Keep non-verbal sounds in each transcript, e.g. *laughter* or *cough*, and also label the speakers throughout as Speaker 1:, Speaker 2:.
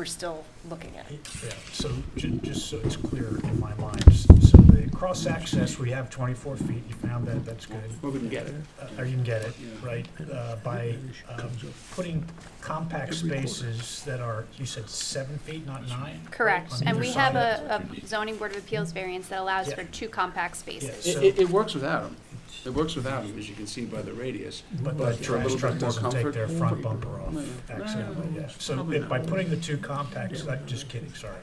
Speaker 1: we're still looking at.
Speaker 2: Yeah, so ju- just so it's clear in my mind, s- so the cross-access, we have 24 feet, you found that, that's good.
Speaker 3: Well, we can get it.
Speaker 2: Uh, Or you can get it, right, uh, by um, putting compact spaces that are, you said seven feet, not nine?
Speaker 4: Correct,
Speaker 2: On
Speaker 4: and
Speaker 2: either
Speaker 4: we
Speaker 2: side
Speaker 4: have
Speaker 2: of
Speaker 4: a a zoning board of appeals variance that allows
Speaker 2: Yeah.
Speaker 4: for two compact
Speaker 2: Yes.
Speaker 4: spaces.
Speaker 3: It, it, it works without them. It works without them, as you can see by the radius.
Speaker 2: But
Speaker 3: But
Speaker 2: the
Speaker 3: for a
Speaker 2: trash
Speaker 3: little
Speaker 2: truck
Speaker 3: bit more
Speaker 2: doesn't take
Speaker 3: comfort. oh,
Speaker 2: their front bumper off
Speaker 3: No,
Speaker 2: accidentally,
Speaker 3: no,
Speaker 2: yeah. So if by putting the two compacts, I'm just kidding, sorry.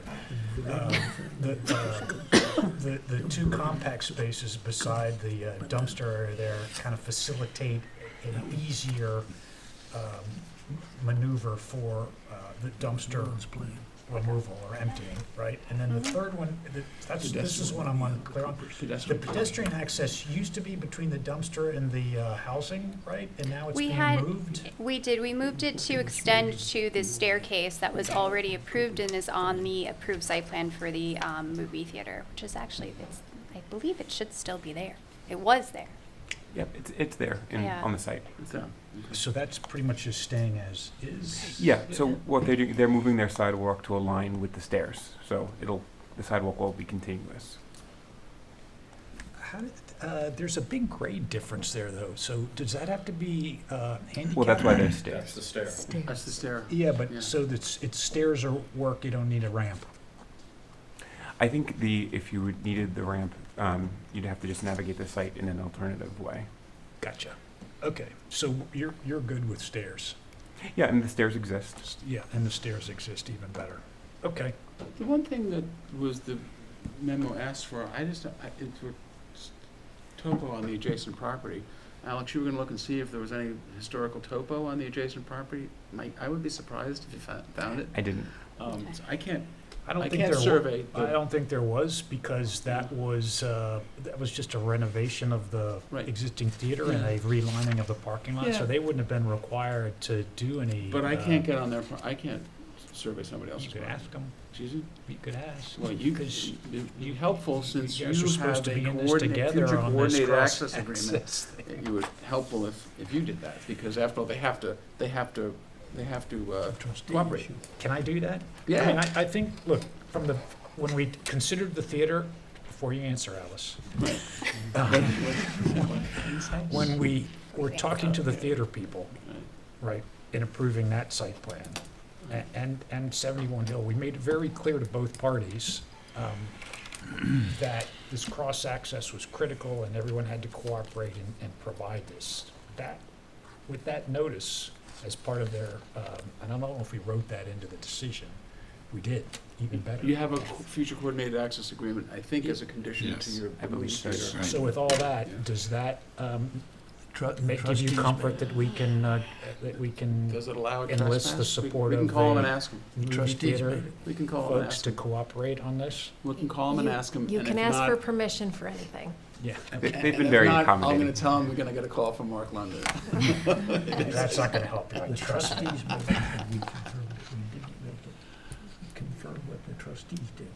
Speaker 2: Um, The, uh, the, the two compact spaces beside the uh, dumpster area there kind of facilitate an easier um, maneuver for uh, the dumpster removal or emptying, right? And then the third one, the- Mm-hmm. that's, this is what I'm unclear on. The
Speaker 3: Pedestrian.
Speaker 2: pedestrian access used to be between the dumpster and the uh, housing, right? And now it's
Speaker 4: We
Speaker 2: being
Speaker 4: had-
Speaker 2: moved?
Speaker 4: We did, we moved it to extend to the staircase that was already approved and is on the approved site plan for the um, movie theater, which is actually, it's, I believe it should still be there. It was there.
Speaker 5: Yep, it's, it's there in,
Speaker 4: Yeah.
Speaker 5: on the site.
Speaker 3: It's down.
Speaker 2: So that's pretty much just staying as is?
Speaker 5: Yeah, so what they're doing, they're moving their sidewalk to align with the stairs, so it'll, the sidewalk will be continuous.
Speaker 2: How did- uh, There's a big grade difference there, though, so does that have to be uh, handicapped?
Speaker 5: Well, that's why there's stairs.
Speaker 6: the stair.
Speaker 3: That's the stair.
Speaker 2: Yeah,
Speaker 3: Yeah.
Speaker 2: but so it's it's stairs or work, you don't need a ramp.
Speaker 5: I think the, if you would- needed the ramp, um, you'd have to just navigate the site in an alternative way.
Speaker 2: Gotcha. Okay, so you're, you're good with stairs?
Speaker 5: Yeah, and the stairs exist.
Speaker 2: S- Yeah, and the stairs exist even better. Okay.
Speaker 3: The one thing that was the memo asked for, I just, I, it were s- topo on the adjacent property. Alex, you were gonna look and see if there was any historical topo on the adjacent property. Mike, I would be surprised if you fo- found it.
Speaker 5: I didn't,
Speaker 3: Um,
Speaker 4: Okay.
Speaker 3: so I can't,
Speaker 2: I don't
Speaker 3: I
Speaker 2: think
Speaker 3: can't
Speaker 2: there were,
Speaker 3: survey
Speaker 2: I
Speaker 3: the,
Speaker 2: don't think there was, because that was, uh, that was just a renovation of the
Speaker 3: Right.
Speaker 2: existing theater and
Speaker 3: Yeah.
Speaker 2: a relining of the parking lot, so
Speaker 3: Yeah.
Speaker 2: they wouldn't have been required to do any.
Speaker 3: but I
Speaker 2: uh,
Speaker 3: can't get on their, pro- I can't s- survey somebody
Speaker 2: You
Speaker 3: else's
Speaker 2: could
Speaker 3: property.
Speaker 2: ask them,
Speaker 3: Excuse me?
Speaker 2: you could ask.
Speaker 3: Well, you,
Speaker 2: 'Cause
Speaker 3: it'd be helpful since
Speaker 2: you
Speaker 3: you
Speaker 2: guys are supposed
Speaker 3: have
Speaker 2: to
Speaker 3: a
Speaker 2: be in this
Speaker 3: coordinate,
Speaker 2: together
Speaker 3: future
Speaker 2: on this
Speaker 3: coordinated
Speaker 2: cross
Speaker 3: *laughs* access agreement.
Speaker 2: access thing.
Speaker 3: It would helpful if, if you did that, because after all, they have to, they have to, they have to, uh, cooperate.
Speaker 2: Can I do that? I mean,
Speaker 3: Yeah,
Speaker 2: I, I think, look, from the, when we considered the theater, before you answer, Alice, when we were talking to the theater people, right, in approving that site plan, a- and, and 71 Hill, we made it very clear to both parties um, that this cross-access was critical and everyone had to cooperate and, and provide this. That, with that notice as part of their, um, and I don't know if we wrote that into the decision, we did, even better.
Speaker 3: uh, you have a co- future coordinated access agreement, I think, as a condition to your
Speaker 5: I believe so.
Speaker 3: lease.
Speaker 6: Right.
Speaker 2: So with all
Speaker 3: Yeah.
Speaker 2: that, does that um, ma- give you comfort that we can, uh, that we can
Speaker 3: Does it allow a trespass?
Speaker 2: Enlist the
Speaker 3: We-
Speaker 2: support
Speaker 3: We
Speaker 2: of
Speaker 3: can call them and
Speaker 2: the-
Speaker 3: ask them,
Speaker 2: movie
Speaker 7: Trustees
Speaker 2: theater
Speaker 7: made it.
Speaker 3: we can call them and
Speaker 2: folks
Speaker 3: ask
Speaker 2: to
Speaker 3: them,
Speaker 2: cooperate on this?
Speaker 3: we can call them and ask them,
Speaker 7: You
Speaker 3: and if
Speaker 7: can ask for
Speaker 3: not.
Speaker 7: permission for anything.
Speaker 2: Yeah.
Speaker 5: They-
Speaker 3: and-
Speaker 5: they've been
Speaker 3: and if
Speaker 5: very
Speaker 3: not, I'm gonna
Speaker 5: accommodating.
Speaker 3: tell them we're gonna get a call from Mark London.
Speaker 2: That's not going to help you, I
Speaker 7: The
Speaker 2: trust me.
Speaker 7: trustees made it, and we confirmed it, we didn't make it. Confirmed what the trustees did.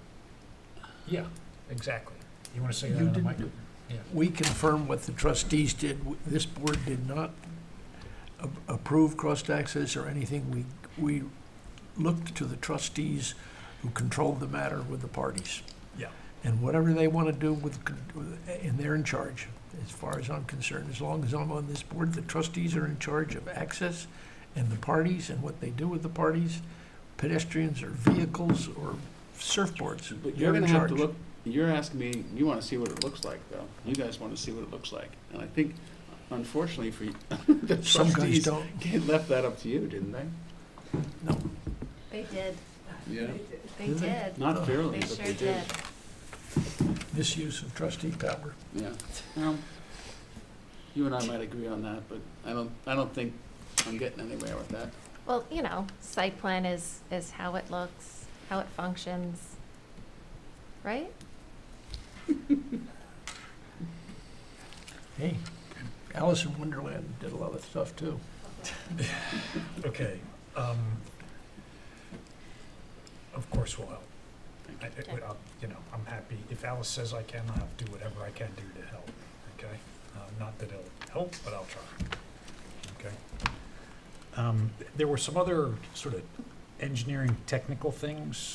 Speaker 2: Yeah, exactly. You want to say
Speaker 7: You
Speaker 2: that on the
Speaker 7: didn't
Speaker 2: mic?
Speaker 7: do-
Speaker 2: Yeah.
Speaker 7: We confirmed what the trustees did. W- This board did not a- approve cross-access or anything. We, we looked to the trustees who controlled the matter with the parties.
Speaker 2: Yeah.
Speaker 7: And whatever they want to do with, con- with- and they're in charge, as far as I'm concerned. As long as I'm on this board, the trustees are in charge of access and the parties and what they do with the parties, pedestrians or vehicles or surfboards.
Speaker 3: But
Speaker 7: They're
Speaker 3: you're
Speaker 7: in
Speaker 3: gonna have to
Speaker 7: charge.
Speaker 3: look, you're asking me, you wanna see what it looks like, though. You guys wanna see what it looks like. And I think, unfortunately for you, *laughs* the
Speaker 7: Some guys
Speaker 3: trustees
Speaker 7: don't.
Speaker 3: left that up to you, didn't they?
Speaker 7: No.
Speaker 1: They did,
Speaker 3: Yeah.
Speaker 1: they
Speaker 7: Did they?
Speaker 1: did.
Speaker 3: Not fairly,
Speaker 1: They
Speaker 3: but
Speaker 1: sure
Speaker 3: they did.
Speaker 1: did.
Speaker 7: Misuse of trustee power.
Speaker 3: Yeah. Well, you and I might agree on that, but I don't, I don't think I'm getting anywhere with that.
Speaker 8: Well, you know, site plan is, is how it looks, how it functions, right?
Speaker 7: Hey, Alice in Wonderland did a lot of stuff too.
Speaker 2: Okay. um, Of course we'll help. I- I- I'll- You know, I'm happy, if Alice says I can, I'll do whatever I can do to help, okay? Uh, Not that it'll help, but I'll try, okay? Um, There were some other sort of engineering technical things